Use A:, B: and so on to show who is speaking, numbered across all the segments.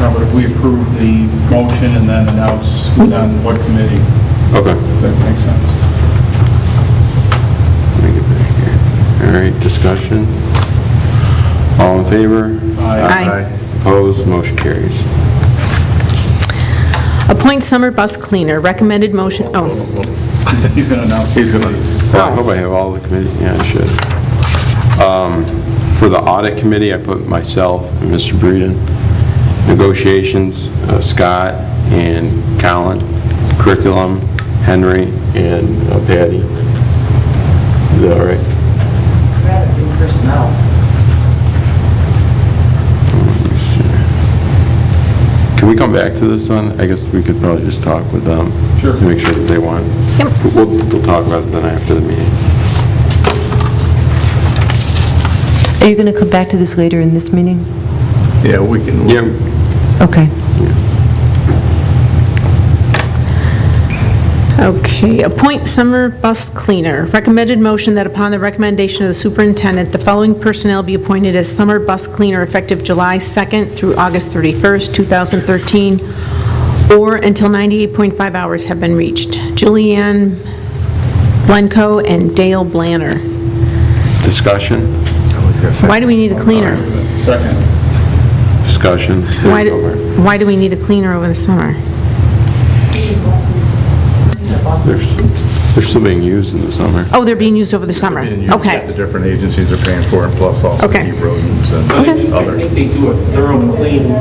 A: No, but if we approve the motion and then announce on what committee,
B: Okay.
A: that makes sense.
B: Let me get back here. All right, discussion. All in favor?
A: Aye.
C: Aye.
B: Opposed, motion carries.
C: Appoint summer bus cleaner, recommended motion, oh,
A: He's going to announce. He's going to.
B: Well, Oh, I hope I have all the committee, yeah, I should. Um, For the audit committee, I put myself and Mr. Breeden. Negotiations, uh, Scott and Colin. Curriculum, Henry and uh, Patty. Is that all right?
D: credit in personnel.
B: Can we come back to this one? I guess we could probably just talk with them.
A: Sure.
B: Make sure that they want.
C: Yep.
B: We'll, we'll talk about it then after the meeting.
E: Are you going to come back to this later in this meeting?
A: Yeah, we can.
B: Yeah,
E: Okay.
C: okay. Appoint summer bus cleaner, recommended motion that upon the recommendation of the superintendent, the following personnel be appointed as summer bus cleaner effective July 2nd through August 31st, 2013, or until 98.5 hours have been reached. Julianne Blenko and Dale Blanner.
B: Discussion?
C: Why do we need a cleaner?
A: Second.
B: Discussion.
C: Why, do- why do we need a cleaner over the summer?
B: They're they're still being used in the summer.
C: Oh, they're being used over the summer?
F: The
C: Okay.
F: different agencies are paying for, and plus also
C: Okay.
F: deep rodents and
G: I think- I
F: other.
G: think they do a thorough clean,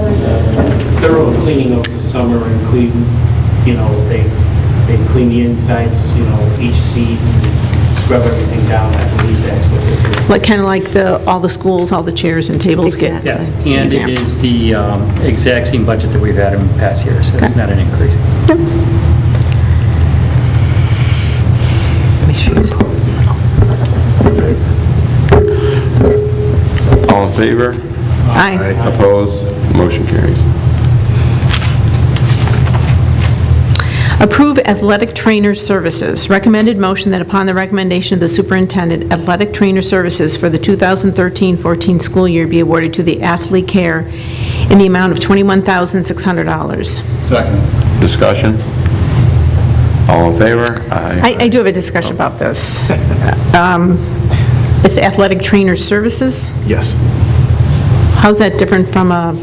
G: thorough cleaning of the summer and clean, you know, they, they clean the insides, you know, each seat, and scrub everything down. I believe that's what this is.
C: Like, kind of like the, all the schools, all the chairs and tables get...
H: Yes, and it
C: revamped.
H: is the um, exact same budget that we've had in past years, so it's not an increase.
B: All in favor?
C: Aye.
B: Opposed? Motion carries.
C: Approve athletic trainer services. Recommended motion that upon the recommendation of the superintendent, athletic trainer services for the 2013-14 school year be awarded to the Athlete Care in the amount of $21,600.
A: Second.
B: Discussion? All in favor?
C: I, I do have a discussion about this. Um, It's athletic trainer services?
F: Yes.
C: How's that different from a,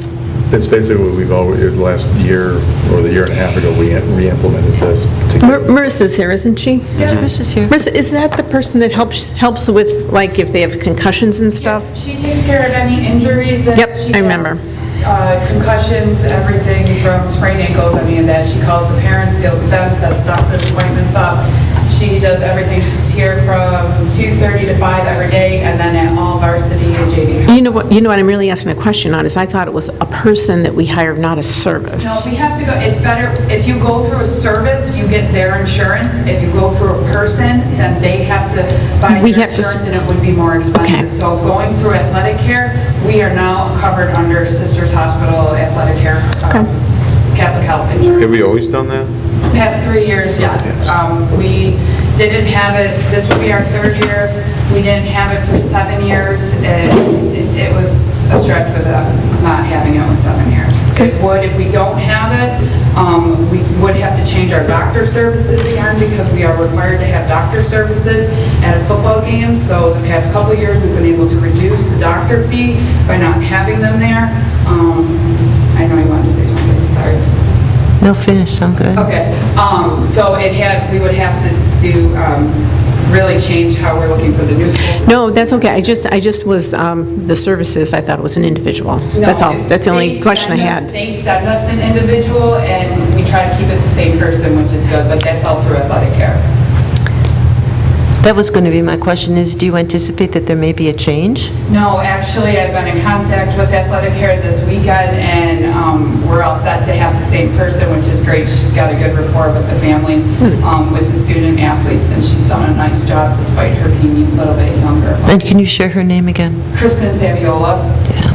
F: That's basically what we've always, the last year or the year and a half ago, we re-implemented this. to
C: Mar-
F: get-
C: Marissa's here, isn't she?
E: Chris's here.
C: Marissa, is that the person that helps, helps with, like, if they have concussions and stuff?
I: She takes care of any injuries that
C: Yep,
I: she
C: I
I: has,
C: remember.
I: uh, Concussions, everything from sprained ankles, I mean, that she calls the parents, deals with them, sets doctor's appointments up. She does everything. She's here from 2:30 to 5 every day, and then at all varsity and JV.
C: You know what, you know what I'm really asking a question on, is I thought it was a person that we hired, not a service.
I: No, we have to go, it's better, if you go through a service, you get their insurance. If you go through a person, then they have to buy
C: We
I: your
C: have to s-
I: insurance, and it would be more
C: Okay.
I: expensive. So going through athletic care, we are now covered under Sisters Hospital Athletic Care, um, Catholic Health Insurance.
B: Have we always done that?
I: Past three years, yes. Um, We didn't have it, this would be our third year. We didn't have it for seven years. and It it was a stretch with uh, not having it with seven years. It would, if we don't have it, um, we would have to change our doctor services again because we are required to have doctor services at a football game. So the past couple of years, we've been able to reduce the doctor fee by not having them there. Um, I know you wanted to say something, sorry.
E: No, finish, I'm good.
I: Okay, um, so it had, we would have to do, um, really change how we're looking for the new school.
C: No, that's okay, I just, I just was, um, the services, I thought it was an individual. That's all, that's the only
I: They
C: question I
I: send us-
C: had.
I: They send us an individual, and we try to keep it the same person, which is good, but that's all through athletic care.
E: That was going to be my question, is do you anticipate that there may be a change?
I: No, actually, I've been in contact with Athletic Care this weekend, and um, we're all set to have the same person, which is great. She's got a good rapport with the families,
C: Hmm.
I: um, with the student athletes, and she's done a nice job despite her being a little bit younger.
E: And can you share her name again?
I: Kristen Saviola.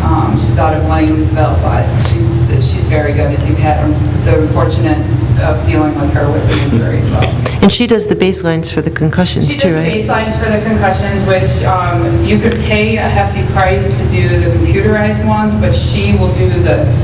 I: Um, She's out of Williamsville, but she's, she's very good. And You've had the fortunate of dealing with her with the injury, so.
E: And she does the baselines for the concussions
I: She
E: too,
I: did
E: right?
I: baselines for the concussions, which um, you could pay a hefty price to do the computerized ones, but she will do the